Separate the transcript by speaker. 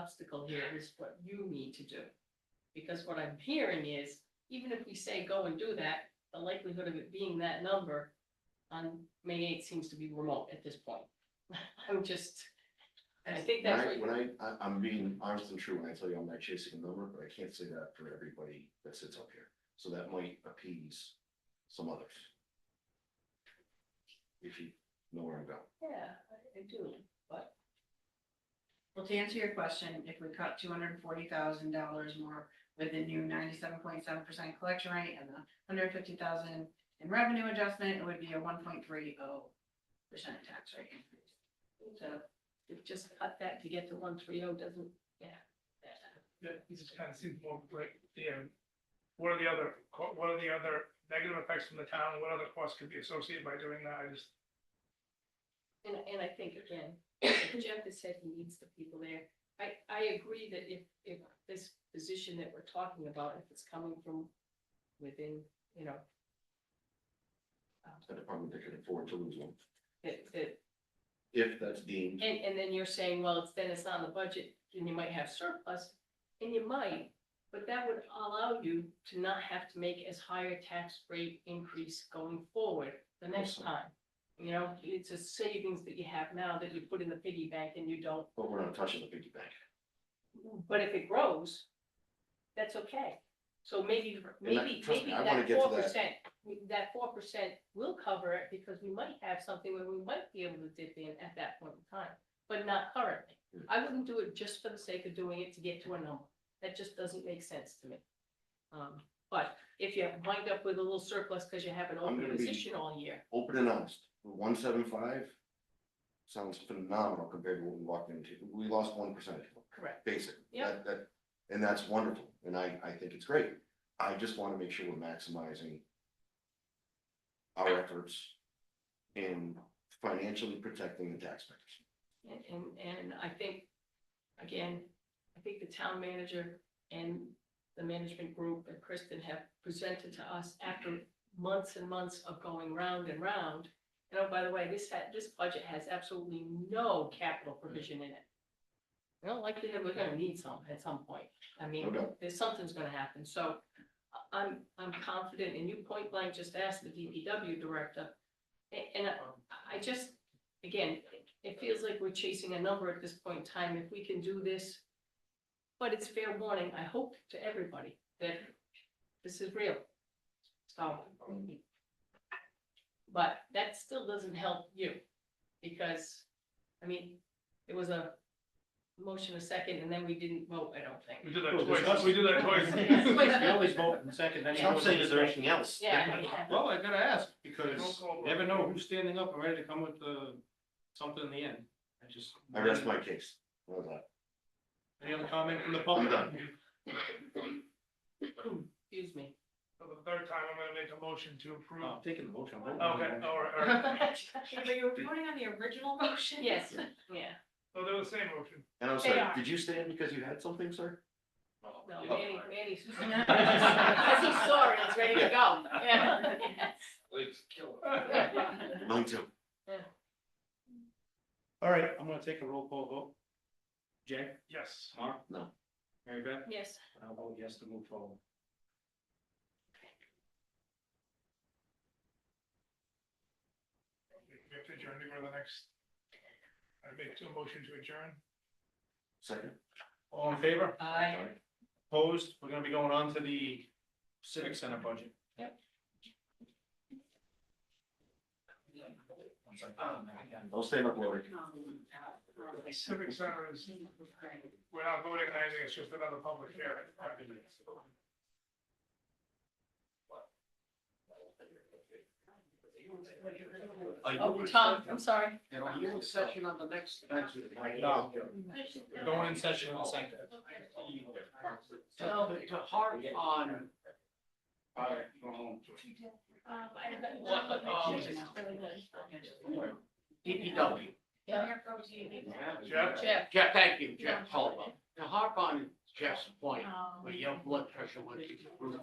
Speaker 1: obstacle here is what you need to do. Because what I'm hearing is, even if we say go and do that, the likelihood of it being that number on May eighth seems to be remote at this point. I'm just, I think
Speaker 2: When
Speaker 1: that's
Speaker 2: I,
Speaker 1: what,
Speaker 2: when I, I, I'm being honest and true when I tell you I'm not chasing a number, but I can't say that for everybody that sits up here. So that might appease some others. If you know where I'm going.
Speaker 1: yeah, I- I do, but
Speaker 3: Well, to answer your question, if we cut two hundred and forty thousand dollars more with the new ninety-seven point seven percent collection rate and the hundred fifty thousand in revenue adjustment, it would be a one point three oh percent tax rate increase. So,
Speaker 1: if just cut that to get to one three oh doesn't, yeah.
Speaker 4: that this just kind of seems more like, yeah, what are the other, co- what are the other negative effects from the town, what other costs could be associated by doing that, I just.
Speaker 1: And, and I think again, Jeff has said he needs the people there. I, I agree that if, if this position that we're talking about, if it's coming from within, you know,
Speaker 2: The department that can afford to lose one,
Speaker 1: that, that,
Speaker 2: if that's deemed.
Speaker 1: and, and then you're saying, well, it's, then it's not in the budget, and you might have surplus, and you might, but that would allow you to not have to make as high a tax rate increase going forward the next
Speaker 2: Awesome.
Speaker 1: time. You know, it's a savings that you have now that you put in the piggy bank and you don't
Speaker 2: But we're not touching the piggy bank.
Speaker 1: But if it grows, that's okay. So maybe,
Speaker 2: And I-
Speaker 1: maybe,
Speaker 2: trust
Speaker 1: maybe
Speaker 2: me, I wanna
Speaker 1: that
Speaker 2: get to
Speaker 1: four
Speaker 2: that.
Speaker 1: percent, that four percent will cover it because we might have something where we might be able to dip in at that point in time, but not currently.
Speaker 2: Hmm.
Speaker 1: I wouldn't do it just for the sake of doing it to get to a number. That just doesn't make sense to me. Um, but if you wind up with a little surplus because you haven't opened
Speaker 2: gonna
Speaker 1: a
Speaker 2: be-
Speaker 1: position all year,
Speaker 2: Open and honest, one seven five sounds phenomenal compared to what we walked into. We lost one percentage.
Speaker 1: correct?
Speaker 2: basic.
Speaker 1: Yeah.
Speaker 2: That- that- and that's wonderful, and I, I think it's great. I just wanna make sure we're maximizing our efforts in financially protecting the taxpayers.
Speaker 1: And, and, and I think, again, I think the town manager and the management group and Kristen have presented to us after months and months of going round and round. And oh, by the way, this had, this budget has absolutely no capital provision in it. You know, likely that we're gonna need some at some point. I mean,
Speaker 2: Okay.
Speaker 1: there's, something's gonna happen, so I- I'm, I'm confident, and you point blank just asked the DPW director. A- And I, I just, again, it feels like we're chasing a number at this point in time, if we can do this. But it's fair warning, I hope to everybody that this is real. So. But that still doesn't help you, because, I mean, it was a motion a second, and then we didn't vote, I don't
Speaker 4: We
Speaker 1: think.
Speaker 4: do that
Speaker 5: Well,
Speaker 4: twice, we do that twice.
Speaker 5: We always vote in second, then.
Speaker 2: Stop saying, is there anything else?
Speaker 1: Yeah, yeah.
Speaker 5: Well, I gotta ask, because
Speaker 4: Don't call
Speaker 5: you never know who's standing up and ready to come with the, something in the end. I just.
Speaker 2: I rest my case. Well done.
Speaker 5: Any other comment from the public?
Speaker 2: I'm
Speaker 1: Excuse me.
Speaker 4: For the third time, I'm gonna make a motion to approve.
Speaker 5: No, Oh, I'm taking the motion. I'm
Speaker 4: Okay,
Speaker 5: voting.
Speaker 4: all right, all right,
Speaker 3: but you were voting on the original motion?
Speaker 1: Yes, yeah.
Speaker 4: so they're the same motion.
Speaker 2: And I'm
Speaker 3: They
Speaker 2: sorry,
Speaker 3: are.
Speaker 2: did you stand because you had something, sir?
Speaker 1: No,
Speaker 2: Yeah.
Speaker 1: Manny, Manny's. As he saw it, it's ready to go. Yeah.
Speaker 2: Mine too.
Speaker 5: All right, I'm gonna take a roll call vote. Jack,
Speaker 4: Yes,
Speaker 5: Mark?
Speaker 2: No.
Speaker 5: Mary Beth?
Speaker 1: Yes,
Speaker 5: I'll vote yes to move forward.
Speaker 4: we we have to adjourn to go to the next. I make two motion to adjourn.
Speaker 2: Second.
Speaker 5: All in favor?
Speaker 1: I.
Speaker 5: Opposed? We're gonna be going on to the civic center budget.
Speaker 2: Don't stand up,
Speaker 5: Oh,
Speaker 2: Lori.
Speaker 4: Civic Center is, we're not voting on anything, it's just another public hearing.
Speaker 1: Oh, Tom, I'm sorry.
Speaker 5: session on the next. No, going in session on the second.
Speaker 1: So,
Speaker 5: to harp on. uh, All right, go home. um,
Speaker 6: DPW.
Speaker 4: Jeff?
Speaker 1: Jeff,
Speaker 6: Jeff, thank you, Jeff Tolba. Now harp on Jeff's point, where your blood pressure went through the roof.